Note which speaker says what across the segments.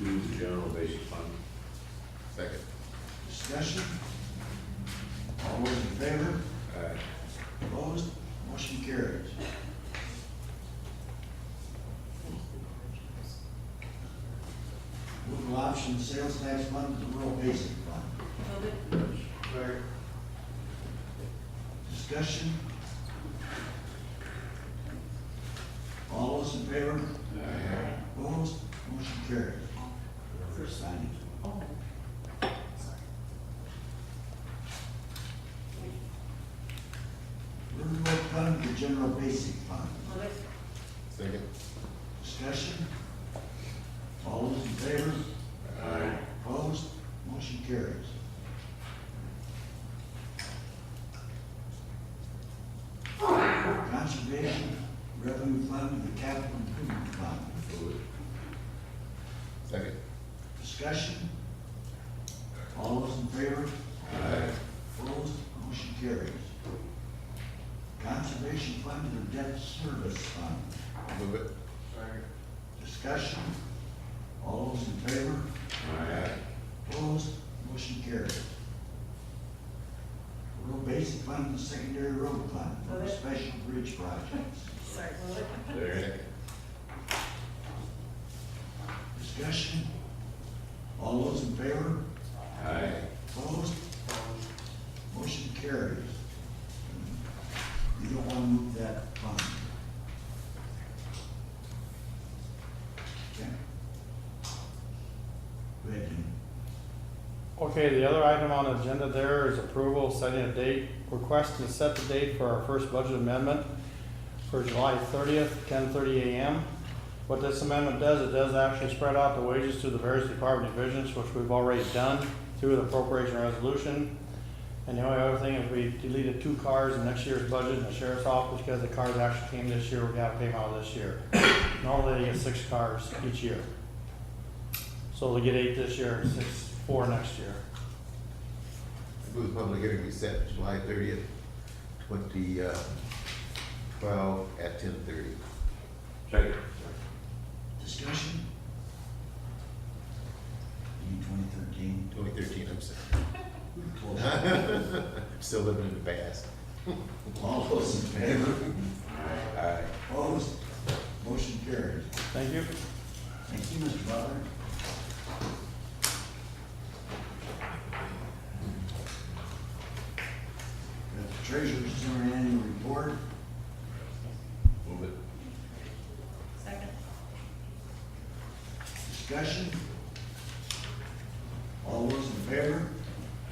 Speaker 1: Move the general basic fund.
Speaker 2: Second.
Speaker 3: Discussion? All those in favor?
Speaker 2: Aye.
Speaker 3: Opposed? Motion carries. Move option sales tax fund to rural basic fund.
Speaker 4: Move it.
Speaker 3: Discussion? All those in favor? Opposed? Motion carries. First signing.
Speaker 4: Oh. Sorry.
Speaker 3: Riverboat fund to general basic fund.
Speaker 4: Move it.
Speaker 2: Second.
Speaker 3: Discussion? All those in favor?
Speaker 1: Aye.
Speaker 3: Opposed? Motion carries. Conservation Revenue Fund and the Capital Improvement Fund.
Speaker 2: Move it. Second.
Speaker 3: Discussion? All those in favor?
Speaker 2: Aye.
Speaker 3: Opposed? Motion carries. Conservation Fund and the Debt Service Fund.
Speaker 2: Move it.
Speaker 3: Discussion? All those in favor?
Speaker 1: Aye.
Speaker 3: Opposed, motion carried. Rural Basic Fund and Secondary Road Fund for Special Bridge Projects.
Speaker 4: Sorry, move it.
Speaker 1: Second.
Speaker 3: Discussion? All those in favor?
Speaker 1: Aye.
Speaker 3: Opposed? Motion carries. You don't want to move that fund. Okay. Go ahead, Jim.
Speaker 5: Okay, the other item on the agenda there is approval, setting a date, request to set the date for our first budget amendment for July thirtieth, ten thirty AM. What this amendment does, it does actually spread out the wages to the various department divisions, which we've already done through the appropriation resolution. And the only other thing is we deleted two cars in next year's budget in the sheriff's office because the cars actually came this year, we gotta pay them out this year. Normally they get six cars each year. So they get eight this year and six, four next year.
Speaker 2: Move the public hearing be set July thirtieth, twenty, uh, twelve at ten thirty.
Speaker 1: Second.
Speaker 3: Discussion? E twenty thirteen,
Speaker 2: Twenty thirteen, I'm sorry.
Speaker 3: close.
Speaker 2: Still living in the past.
Speaker 3: All those in favor?
Speaker 2: Aye.
Speaker 3: Opposed? Motion carries.
Speaker 5: Thank you.
Speaker 3: Thank you, Mr. Butler. The Treasurer's Center Annual Report,
Speaker 2: Move it.
Speaker 4: Second.
Speaker 3: discussion. All those in favor?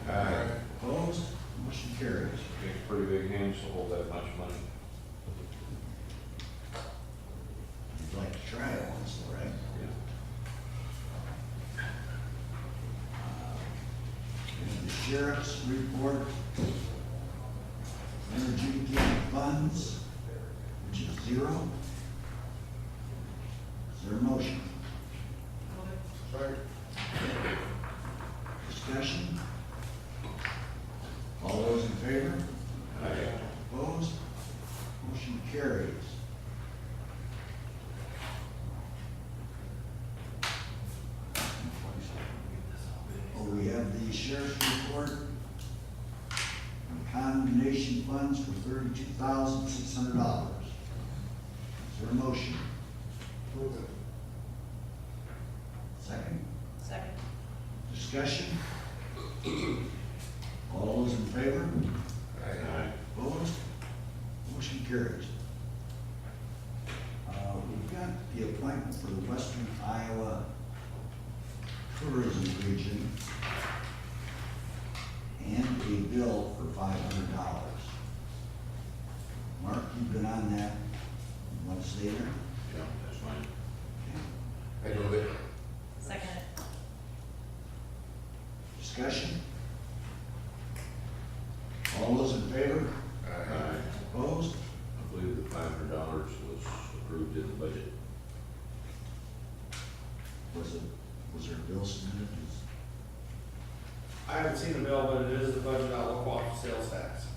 Speaker 2: Aye.
Speaker 3: Opposed? Motion carries.
Speaker 1: Takes pretty big hands to hold that much money.
Speaker 3: You'd like to try it once, all right?
Speaker 1: Yeah.
Speaker 3: And the Sheriff's Report, Interjecting Funds, which is zero. Is there a motion?
Speaker 4: Move it.
Speaker 3: Discussion? All those in favor?
Speaker 1: Aye.
Speaker 3: Opposed? Motion carries. Oh, we have the sheriff's report. Condemnation funds for thirty-two thousand six hundred dollars. Is there a motion? Move it. Second?
Speaker 4: Second.
Speaker 3: Discussion? All those in favor?
Speaker 1: Aye.
Speaker 3: Opposed? Motion carries. Uh, we've got the appointment for the Western Iowa Tourism Region and a bill for five hundred dollars. Mark, you've been on that, You want to stay there?
Speaker 1: Yeah, that's fine.
Speaker 3: Okay.
Speaker 2: I move it.
Speaker 4: Second.
Speaker 3: Discussion? All those in favor?
Speaker 2: Aye.
Speaker 3: Opposed?
Speaker 1: I believe the five hundred dollars was approved in the budget.
Speaker 3: Was it, was there a bill submitted?
Speaker 5: I haven't seen the bill, but it is the budget outlook off sales tax.
Speaker 3: uh,